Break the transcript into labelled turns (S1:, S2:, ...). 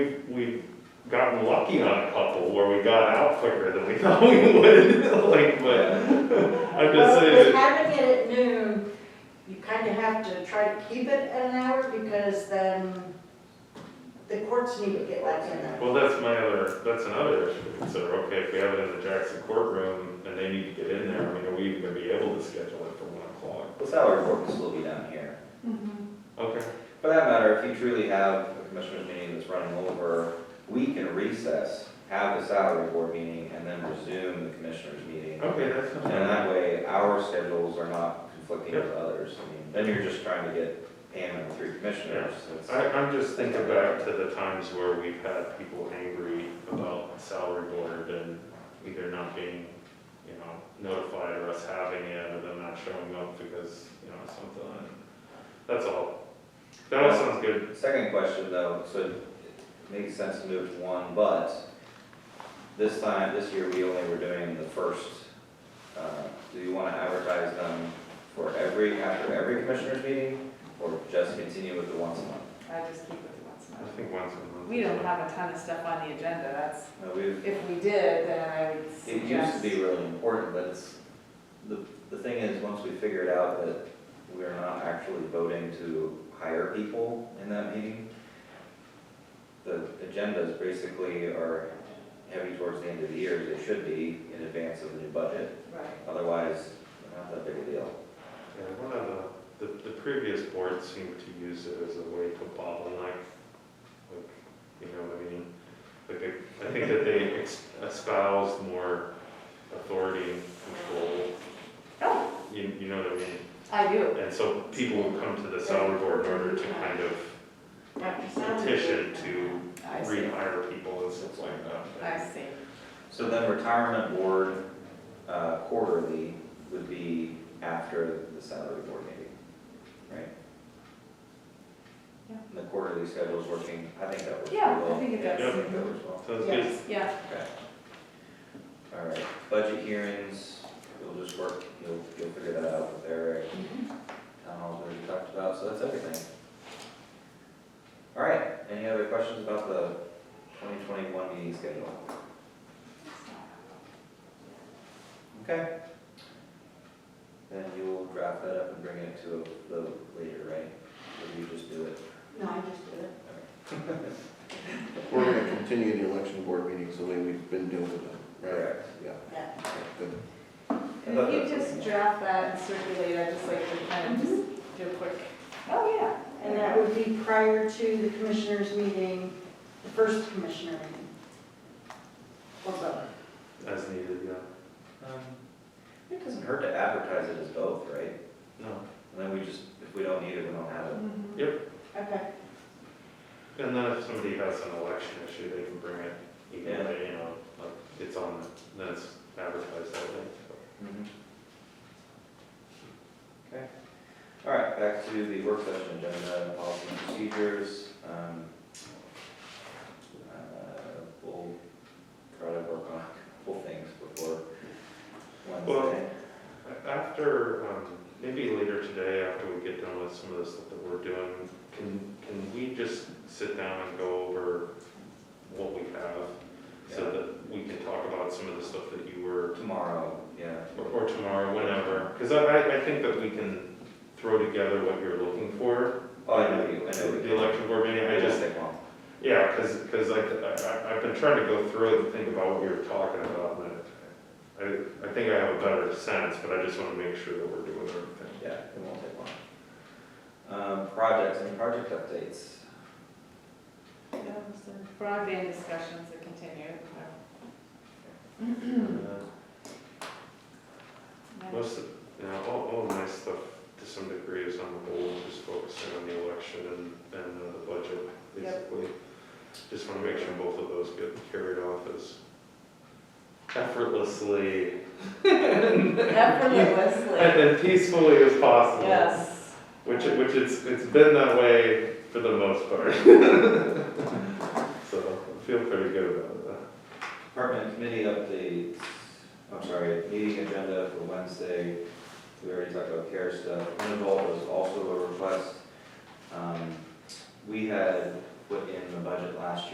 S1: We- We've gotten lucky on a couple where we got out quicker than we thought we would, like, but I'm just
S2: Well,
S1: saying
S2: With
S1: that.
S2: having it at noon, you kind of have to try to keep it at an hour because then the courts need to get back in there.
S1: Well, that's my other, that's another issue to consider, okay, if we have it in the Jackson courtroom and they need to get in there, I mean, are we even gonna be able to schedule it for one o'clock?
S3: The salary board will still be down here.
S4: Mm-hmm.
S1: Okay,
S3: For that matter, if you truly have a commissioners meeting that's running over, we can recess, have the salary board meeting, and then resume the commissioners meeting.
S1: okay, that's
S3: And
S1: not,
S3: that way, our schedules are not conflicting with others. I mean, then you're just trying to get Pam and the three commissioners. It's-
S1: I, I'm just thinking back to the times where we've had people angry about salary board and either not being, you know, notified or us having it or them not showing up because, you know, something. That's all. That all sounds good.
S3: Second question though, so it makes sense to move to one, but this time, this year, we only were doing the first. uh, Do you want to advertise them for every, after every commissioners meeting, or just continue with the once a month?
S4: I just keep it to once a
S1: I
S4: month.
S1: think once a month.
S4: We don't have a ton of stuff on the agenda, that's,
S3: No, we've,
S4: if we did, then I would
S3: it used to
S4: suggest.
S3: be really important, but it's, the, the thing is, once we figured out that we're not actually voting to hire people in that meeting, the agendas basically are heavy towards the end of the year, as they should be in advance of the new budget,
S4: Right.
S3: otherwise, they're not that big a deal.
S1: Yeah, one of the, the, the previous board seemed to use it as a way to bottleneck, like, you know what I mean? Like, they- I think that they ex- espoused more authority and control,
S4: Oh,
S1: you, you know what I mean?
S4: I do.
S1: And so people would come to the salary board in order to kind of petition to
S4: I see.
S1: rehire people and stuff like that.
S4: I see.
S3: So then retirement board uh, quarterly would be after the salary board meeting, right?
S4: Yeah.
S3: And the quarterly schedule's working, I think that works pretty
S4: Yeah, I
S3: well.
S4: think it
S3: I
S1: does.
S3: think that works well.
S1: Sounds good.
S4: Yes, yeah.
S3: Okay. All right, budget hearings, you'll just work, you'll, you'll figure that out with Eric.
S2: Mm-hmm.
S3: Town hall's already talked about, so that's everything. All right, any other questions about the twenty twenty-one meeting schedule? Okay. Then you will draft that up and bring it to a vote later, right? Or you just do it?
S2: No, I just did it.
S5: We're gonna continue the election board meetings the way we've been doing them, right?
S3: Correct.
S5: Yeah.
S2: Yeah.
S5: Good.
S4: And if you just draft that and circulate, I just like to kind of just do a quick, oh, yeah.
S2: And that would be prior to the commissioners meeting, the first commissioner meeting. Or both.
S1: As needed, yeah.
S3: Um, It doesn't hurt to advertise it as both, right?
S1: No.
S3: And then we just, if we don't need it, we don't have it.
S4: Mhm.
S2: Okay.
S1: And then if somebody has an election issue, they can bring it, even
S3: Yeah.
S1: if, you know, like, it's on, then it's advertised that way. so.
S3: Mm-hmm. Okay. All right, back to the work session agenda, policy and procedures. Um, uh, We'll try to work on a couple things before Wednesday.
S1: After, um, maybe later today, after we get done with some of the stuff that we're doing, can, can we just sit down and go over what we have? So
S3: Yeah.
S1: that we can talk about some of the stuff that you were,
S3: Tomorrow, yeah.
S1: or- or tomorrow, whenever. Because I, I- I think that we can throw together what you're looking for.
S3: Oh, I know you, I know you.
S1: The election board meeting, I just,
S3: Take long.
S1: yeah, because, because I, I, I've been trying to go through it and think about what we were talking about. and I, I think I have a better sense, but I just want to make sure that we're doing everything.
S3: Yeah, it won't take long. Um, Projects, any project updates?
S4: That was the Broadband discussions that continue. Mm-hmm.
S3: Uh,
S4: Yeah.
S1: Most, of- you know, all, all my stuff to some degree is on the whole, just focusing on the election and, and uh, the budget,
S4: Yep.
S1: basically. Just wanna make sure both of those get carried off as effortlessly and
S4: Effortlessly,
S1: then peacefully as possible.
S4: yes.
S1: Which, it- which it's, it's been that way for the most part. So, I feel pretty good about that.
S3: Department committee updates, I'm sorry, meeting agenda for Wednesday. We already talked about care stuff. Involved was also a request. Um, We had put in the budget last year.